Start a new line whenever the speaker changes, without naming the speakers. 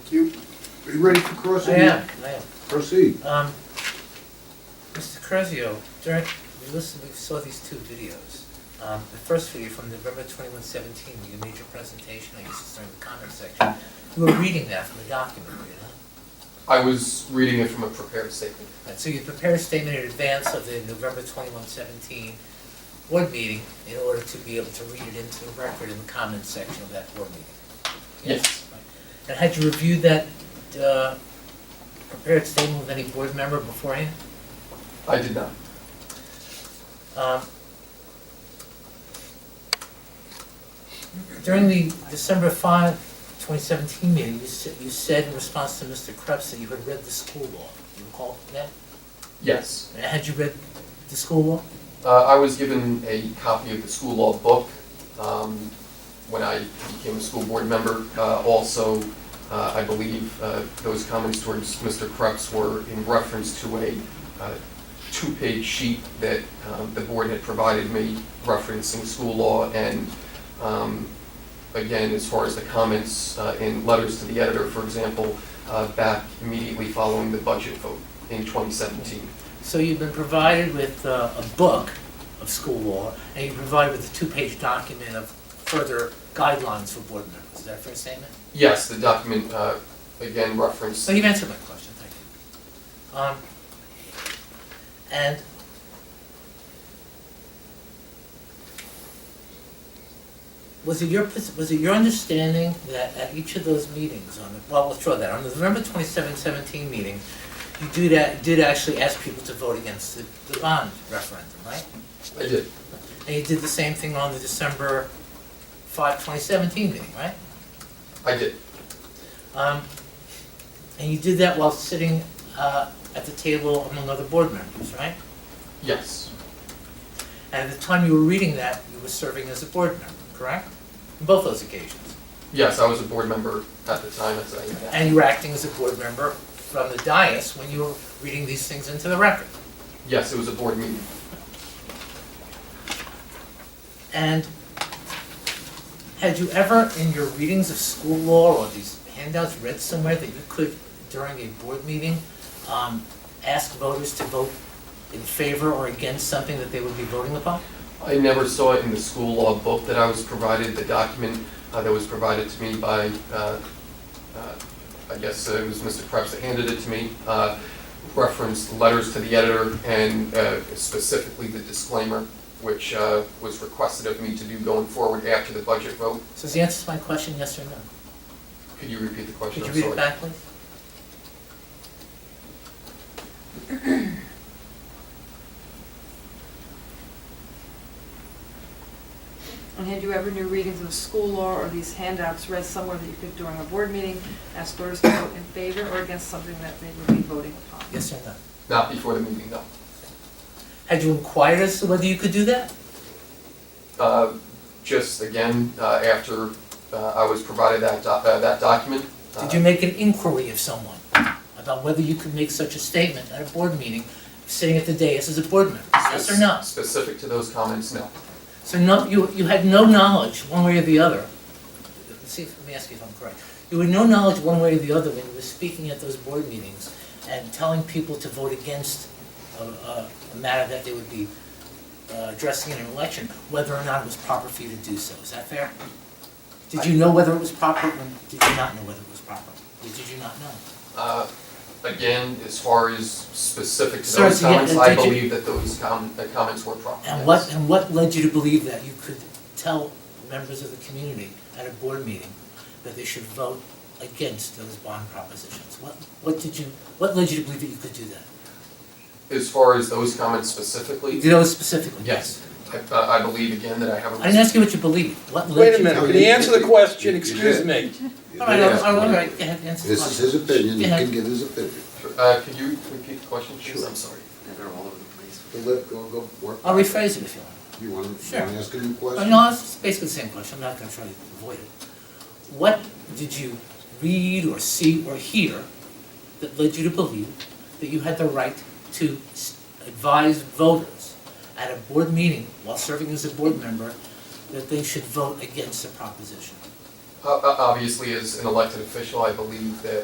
Are you ready for
I
crossing?
am, I am.
Proceed.
Um, Mr. Curzio, during, we listened, we saw these two videos. Um, the first video from November twenty-one seventeen, your major presentation, I guess it's during the comment section. You were reading that from the document, were you not?
I was reading it from a prepared statement.
Right, so you prepared a statement in advance of the November twenty-one seventeen board meeting in order to be able to read it into the record in the comment section of that board meeting.
Yes.
Right. And had you reviewed that, uh, prepared statement with any board member beforehand?
I did not.
Um, During the December 5, 2017 meeting, you said, you said in response to Mr. Krebs that you had read the school law. You recall that?
Yes.
And Had you read the school law?
Uh, I was given a copy of the school law book um, when I became a school board member. Uh, also, uh, I believe uh, those comments towards Mr. Krebs were in reference to a uh, two-page sheet that um, the board had provided me referencing school law. And um, again, as far as the comments uh, in letters to the editor, for example, uh, back immediately following the budget vote in 2017.
So you've been provided with uh, a book of school law, and you're provided with a two-page document of further guidelines for board members. Is that a fair statement?
Yes, the document, uh, again, referenced,
So you've answered my question, thank you. Um, and was it your, pos- was it your understanding that at each of those meetings on, the well, withdraw that, on the November twenty-seven seventeen meeting, you do that, did actually ask people to vote against the, the bond referendum, right?
I did,
And you did the same thing on the December five, twenty seventeen meeting, right?
I did,
Um, And you did that while sitting uh, at the table among other board members, right?
yes,
And at the time you were reading that, you were serving as a board member, correct? On both those occasions.
yes, I was a board member at the time, as I,
And you were acting as a board member from the dais when you were reading these things into the record.
yes, it was a board meeting,
And had you ever, in your readings of school law or these handouts, read somewhere that you could, during a board meeting, um, ask voters to vote in favor or against something that they would be voting upon?
I never saw it in the school law book that I was provided, the document uh, that was provided to me by, uh, uh, I guess it was Mr. Krebs that handed it to me, uh, referenced letters to the editor and uh, specifically the disclaimer, which uh, was requested of me to do going forward after the budget vote.
So is the answer to my question yes or no?
Could you repeat the question?
Could you
I'm
read it
sorry.
back, please?
And had you ever new readings of school law or these handouts read somewhere that you could during a board meeting, ask voters to vote in favor or against something that they would be voting upon?
Yes or no?
Not before the meeting, no.
Had you inquired as to whether you could do that?
Uh, Just again, uh, after uh, I was provided that doc- uh, that document. uh,
Did you make an inquiry of someone about whether you could make such a statement at a board meeting, sitting at the dais as a board member? Yes or no?
Specific to those comments, no.
So no, you, you had no knowledge, one way or the other. Let's See, if- let me ask you if I'm correct. You had no knowledge, one way or the other, when you were speaking at those board meetings and telling people to vote against a, a a matter that they would be uh, addressing in an election, whether or not it was proper for you to do so. Is that fair? Did you know whether it was proper, or did you not know whether it was proper? Or did you not know?
Uh, Again, as far as specific to
Sir,
those
so yeah,
comments,
uh,
I
did you-
believe that those com- the comments were proper.
And
yes.
what, and what led you to believe that you could tell members of the community at a board meeting that they should vote against those bond propositions? What, what did you, what led you to believe that you could do that?
As far as those comments specifically,
Do those specifically?
yes. I- uh, I believe again that I have
I didn't
a,
ask you what you believed, what led you?
Wait
No,
a minute,
you
can you
did-
answer the
you
question,
did.
excuse me?
All right, all right, all right, go ahead, answer the
This is
question.
his opinion, you
Yeah.
can give his opinion.
Uh, could you repeat the question, please?
Sure.
I'm sorry.
So let, go, go work.
I'll rephrase it if you want.
You wanna, you
Sure.
wanna ask him a
Well,
question?
No, it's basically the same question, I'm not gonna try to avoid it. What did you read or see or hear that led you to believe that you had the right to s- advise voters at a board meeting while serving as a board member that they should vote against a proposition?
Uh, O- o- Obviously, as an elected official, I believe that